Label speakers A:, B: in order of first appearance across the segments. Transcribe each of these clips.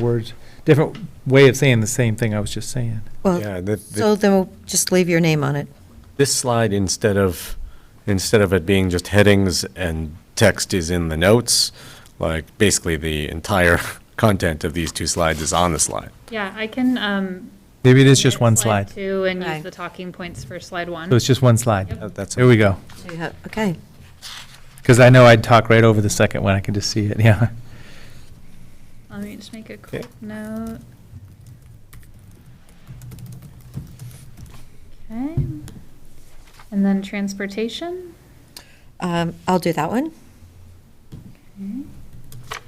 A: words, different way of saying the same thing I was just saying.
B: Yeah,
C: Well,
B: the- the-
C: so then we'll just leave your name on it.
B: This slide, instead of, instead of it being just headings and text is in the notes, like, basically the entire content of these two slides is on the slide.
D: Yeah, I can, um.
A: Maybe it is just
D: edit
A: one slide. So
D: Two and
C: Right.
D: use the talking points for slide one.
A: it's just one slide.
B: That- That's,
A: There we go.
C: So you have- Okay,
A: Because I know I'd talk right over the second one. I can just see it, yeah.
D: Let me just make a
B: Okay.
D: quick note. Okay. And then transportation.
C: um, I'll do that one.
D: Okay.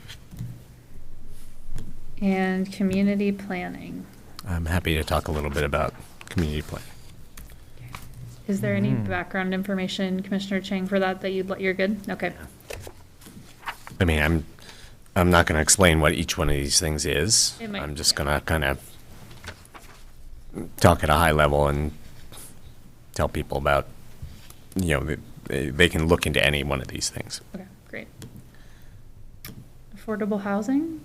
D: And community planning.
B: I'm happy to talk a little bit about community planning.
D: Is there any
A: Mm.
D: background information, Commissioner Chang, for that, that you'd, let- you're good? Okay.
B: I mean, I'm, I'm not going to explain what each one of these things is.
D: It might-
B: I'm just going to kind of talk at a high level and tell people about, you know, they- they, they can look into any one of these things.
D: Okay, great. Affordable housing?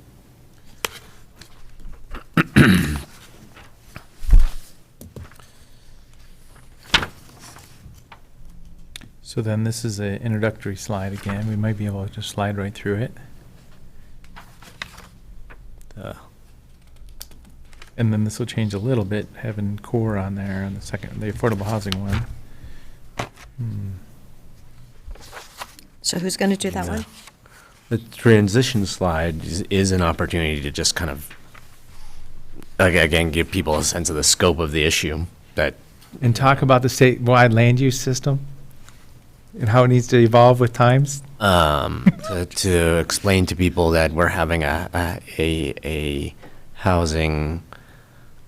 A: So then this is an introductory slide again. We might be able to just slide right through it.
B: Uh,
A: And then this will change a little bit, having core on there on the second, the affordable housing one. Hmm.
C: So who's going to do that
B: Yeah.
C: one?
B: The transition slide is, is an opportunity to just kind of, ag- again, give people a sense of the scope of the issue that,
A: And talk about the statewide land use system and how it needs to evolve with times.
B: um, to, to explain to people that we're having a, a- a, a housing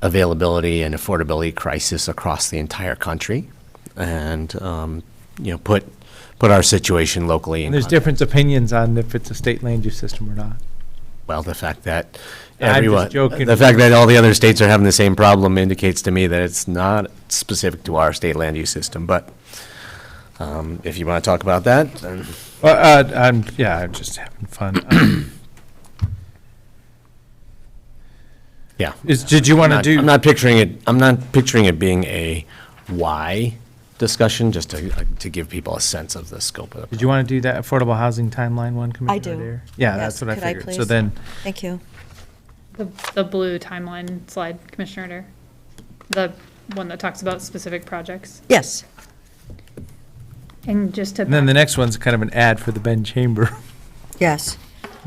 B: availability and affordability crisis across the entire country. And, um, you know, put, put our situation locally in.
A: And there's
B: context.
A: different opinions on if it's a state land use system or not.
B: Well, the fact that
A: I'm just
B: everyone,
A: joking.
B: the fact that all the other states are having the same problem indicates to me that it's not specific to our state land use system, but um, if you want to talk about that, then
A: Well, uh, I'm, yeah, I'm just having fun.
B: yeah.
A: Is, did you want to
B: Not- I'm
A: do,
B: not picturing it, I'm not picturing it being a why discussion, just to, uh, to give people a sense of the scope of
A: did
B: it.
A: you want to do that affordable housing timeline one, Commissioner
C: do.
A: Dare? Yeah,
C: Yes,
A: that's what I
C: could I
A: figured. So
C: please?
A: then,
C: Thank you.
D: The, the blue timeline slide, Commissioner Adair? The one that talks about specific projects?
C: Yes,
D: And just to,
A: and then the
D: back-
A: next one's kind of an ad for the Ben Chamber.
C: yes.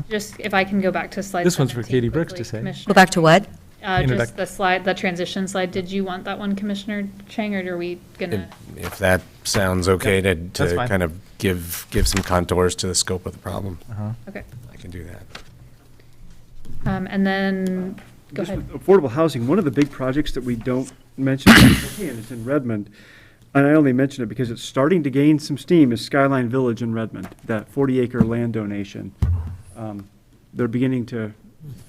D: just if I can go back to slide
A: This one's for
D: 17
A: Katie Brooks to
D: quickly,
A: say.
D: Commissioner-
C: Go back to what?
D: Uh,
A: Introduc-
D: just the slide, the transition slide. Did you want that one, Commissioner Chang, or are we gonna?
B: If that sounds okay to,
A: that's
B: to
A: fine.
B: kind of give, give some contours to the scope of the problem,
A: Uh-huh.
D: Okay.
B: I can do that.
D: Um, and then, go
E: Just
D: ahead.
E: with Affordable housing, one of the big projects that we don't mention, and it's in Redmond, and I only mention it because it's starting to gain some steam, is Skyline Village in Redmond, that 40-acre land donation. Um, They're beginning to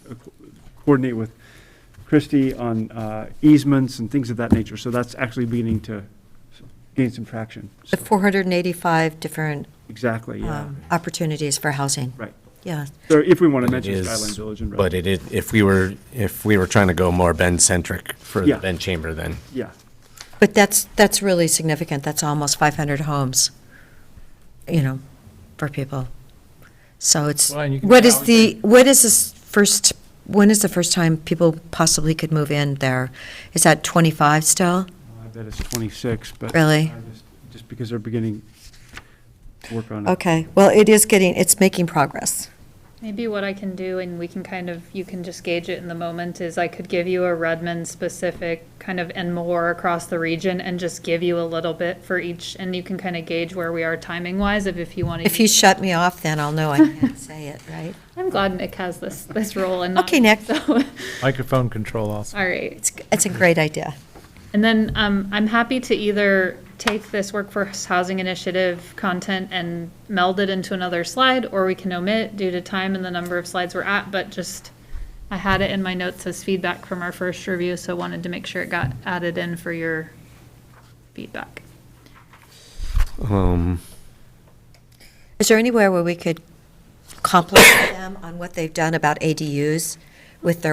E: uh, co- coordinate with Christie on uh, easements and things of that nature, so that's actually beginning to s- gain some traction.
C: The
E: So-
C: 485 different
E: Exactly, yeah,
C: um, opportunities for housing.
E: right.
C: Yeah,
E: So if we want to
B: But it
E: mention
B: is-
E: Skyline Village in
B: But it
E: Redmond,
B: is, if we were, if we were trying to go more Ben-centric for the
E: Yeah.
B: Ben Chamber, then
E: yeah.
C: but that's, that's really significant. That's almost 500 homes, you know, for people. So it's,
A: Well, and you can
C: what is
A: allocate-
C: the, what is this first, when is the first time people possibly could move in there? Is that 25 still?
E: I bet it's 26, but.
C: Really?
E: I just- Just because they're beginning to work on it.
C: Okay, well, it is getting, it's making progress.
D: Maybe what I can do, and we can kind of, you can just gauge it in the moment, is I could give you a Redmond specific kind of and more across the region and just give you a little bit for each, and you can kind of gauge where we are timing wise if, if you want to.
C: If you shut me off, then I'll know I can't say it, right?
D: I'm glad Nick has this, this role and not.
C: Okay, Nick.
D: so-
A: Microphone control also.
D: All right.
C: It's, it's a great idea.
D: And then um, I'm happy to either take this workforce housing initiative content and meld it into another slide, or we can omit due to time and the number of slides we're at, but just, I had it in my notes as feedback from our first review, so wanted to make sure it got added in for your feedback.
B: Um,
C: Is there anywhere where we could compliment them on what they've done about ADUs with their